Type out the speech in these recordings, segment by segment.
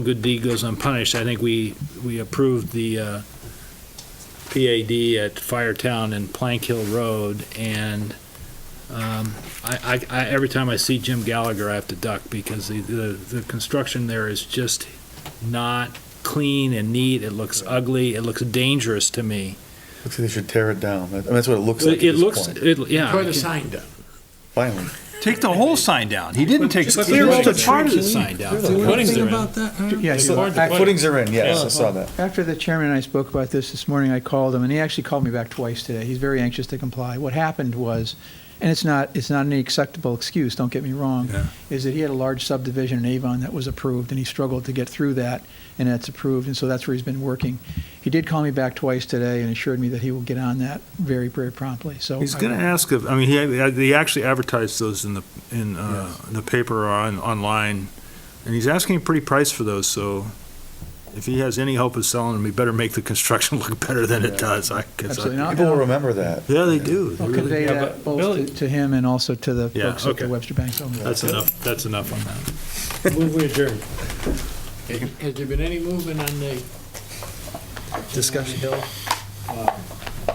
good deed goes unpunished. I think we, we approved the uh, PAD at Firetown and Plank Hill Road, and um, I, I, I- every time I see Jim Gallagher, I have to duck, because the, the, the construction there is just not clean and neat. It looks ugly. It looks dangerous to me. Looks like they should tear it down. That- I mean, that's what it looks like at It this looks, point. it, yeah. Put a sign down. Finally. Take the whole sign down. He didn't take, Just clear all the the part of the trees. sign down. The footings are in. that? Yeah, So, so- uh, Footings are in, yes, I saw that. After the chairman and I spoke about this this morning, I called him, and he actually called me back twice today. He's very anxious to comply. What happened was, and it's not, it's not any acceptable excuse, don't get me wrong, is that he had a large subdivision in Avon that was approved, and he struggled to get through that, and that's approved, and so that's where he's been working. He did call me back twice today and assured me that he will get on that very, very promptly, so. He's I- going to ask if, I mean, he, he actually advertised those in the, in, uh, the paper or on, online. And he's asking a pretty price for those, so if he has any hope of selling them, he better make the construction look better than it does, I guess. Absolutely not. People will remember that. Yeah, they do. They I'll really convey do. that both to- to him and also to the Yeah, folks at okay. the Webster Bank. Building. That's enough, that's enough on that. Move we adjourn. Has there been any movement on the? Discussion. Hill, uh,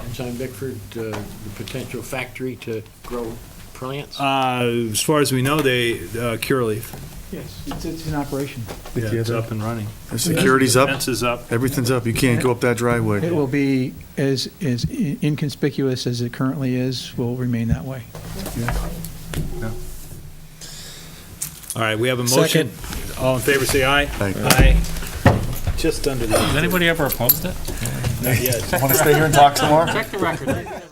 Ensign Bickford, uh, the potential factory to grow plants? Uh, as far as we know, they, uh, Curaleaf, Yes, it's, it's in operation. yeah, it's up and running. The Security's up, Fence is up. everything's up. You can't go up that driveway. It will be as, as inconspicuous as it currently is, will remain that way. All right, we have a motion. All in favor, say aye. Aye. Aye. Just under the. Has anybody ever opposed it? Want to stay here and talk some more? Check the record.